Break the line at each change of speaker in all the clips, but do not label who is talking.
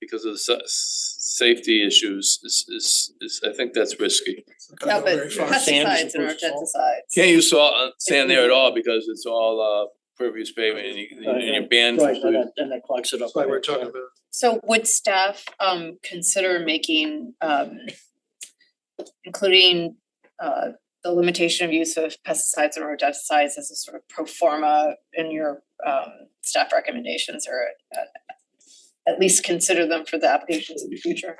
because of the sa- s- safety issues is is is, I think that's risky.
No,
Sand
but pesticides
is
and
supposed to
rodenticides.
Can't use saw uh, sand there at all because it's all uh pervious pavement and you and you're banned from
Right, and
doing.
that, and that clogs it up.
That's why we're talking about.
So would staff um consider making um including uh the limitation of use of pesticides and rodenticides as a sort of pro forma in your um staff recommendations or uh, at least consider them for the applications in the future?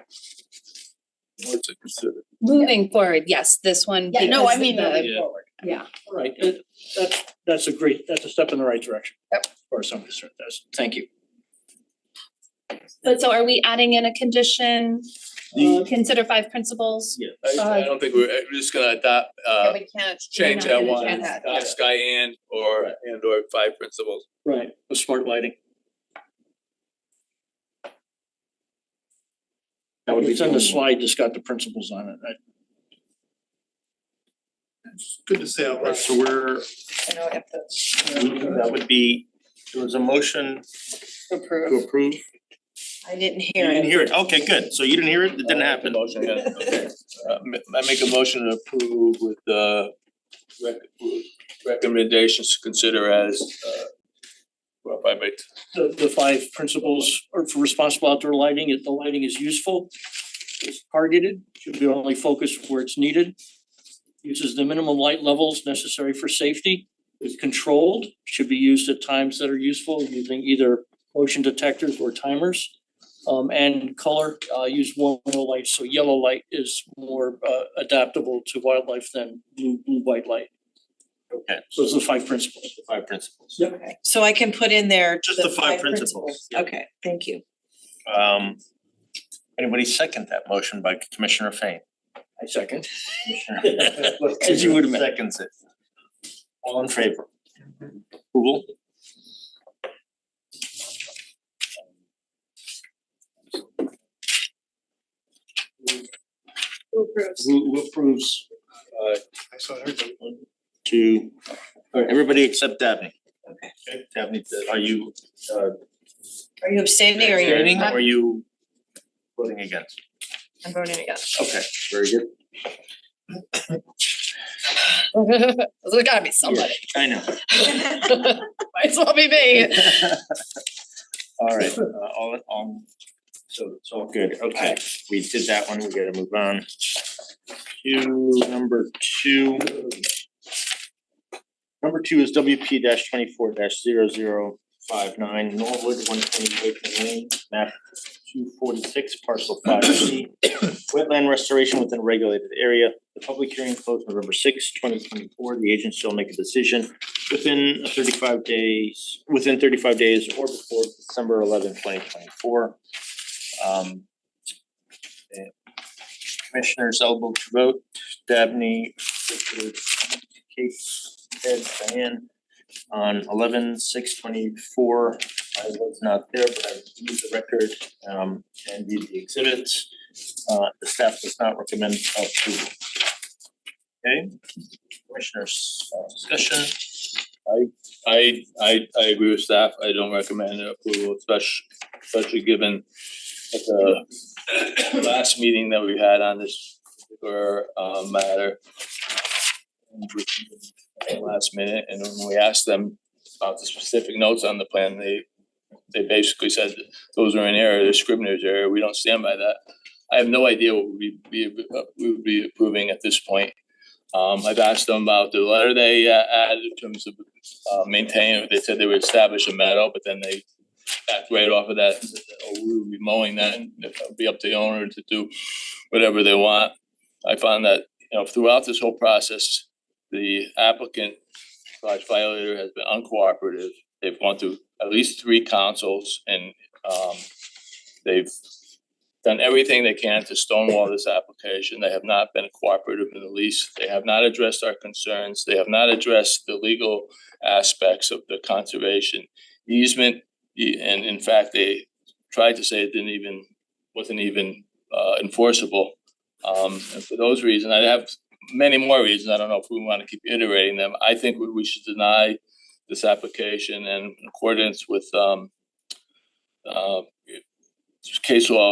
What to consider.
Moving forward, yes, this one.
Yeah, no, I
because
mean
the-
moving
Yeah.
forward.
Yeah,
Right, it- that's, that's a great, that's a step in the right direction.
Yep.
As far as I'm concerned, that's, thank you.
but so are we adding in a condition,
The-
uh, consider five principles?
Yeah.
I I don't think we're uh, we're just gonna adopt
Yeah,
uh
we can't.
change
We're not
that
gonna
one,
change that.
uh, sky and or and or five principles.
Right, with smart lighting.
That would be
It's
the
on the
only one.
slide that's got the principles on it, I-
It's Good to say out loud.
Right, so we're,
I know we have to
that would be, there was a motion to
approve.
approve. You
I didn't hear
didn't
it.
hear it. Okay, good. So you didn't hear it? It didn't happen.
Motion, yeah, okay. Uh, ma- I make a motion to approve with the rec- recommendations to consider as uh well, I made
the the five principles are for responsible outdoor lighting, if the lighting is useful, it's targeted, should be only focused where it's needed. Uses the minimum light levels necessary for safety, is controlled, should be used at times that are useful using either motion detectors or timers. Um and color, uh use warmer light, so yellow light is more uh adaptable to wildlife than blue blue white light.
Okay,
So those are the five principles.
five principles.
Yep.
Okay, so I can put in there
Just
the
the five
five principles.
principles, yeah.
Okay, thank you.
Um, anybody second that motion by Commissioner Fain?
I second.
Commissioner-
As you would imagine.
Seconds it. All in favor? Approval? Who who approves
uh
I saw everybody.
to, all right, everybody except Dabney? Okay. Dabney, are you uh
Are you abstaining or are you?
abstaining
Uh,
or are you voting against?
I'm voting against.
Okay, very good.
There's gotta be somebody.
I know.
Might as well be me.
All right, uh, all, all, so it's all good, okay, we did that one, we gotta move on. To number two. Number two is WP twenty-four 59 Norwood, one twenty Lakeland Lane, map two forty-six, parcel five C. Wetland restoration within a regulated area, the public hearing closed November sixth, twenty twenty-four, the agent shall make a decision within thirty-five days, within thirty-five days or before December eleventh, twenty twenty-four. Um. eh, Commissioners eligible to vote, Dabney, Richard, Kate, Ed, Diane. On eleven six twenty-four, I was not there, but I reviewed the record, um, and did the exhibits. Uh, the staff does not recommend approval. Okay, commissioners, uh, discussion.
I I I agree with staff, I don't recommend approval, especially especially given at the last meeting that we had on this particular uh matter. At the Last minute, and when we asked them about the specific notes on the plan, they they basically said that those are in error, they're scrivener's error, we don't stand by that. I have no idea what we be we would be approving at this point. Um I've asked them about the letter they uh, added in terms of uh maintain, they said they would establish a meadow, but then they backed right off of that, and said, oh, we would be mowing that and it'll be up to the owner to do whatever they want. I found that, you know, throughout this whole process, the applicant slash violator has been uncooperative. They've gone through at least three councils and um they've done everything they can to stonewall this application. They have not been cooperative in the least. They have not addressed our concerns. They have not addressed the legal aspects of the conservation easement. E- And in fact, they tried to say it didn't even, wasn't even uh enforceable. Um and for those reasons, I have many more reasons, I don't know if we wanna keep iterating them, I think we we should deny this application and in accordance with um uh case law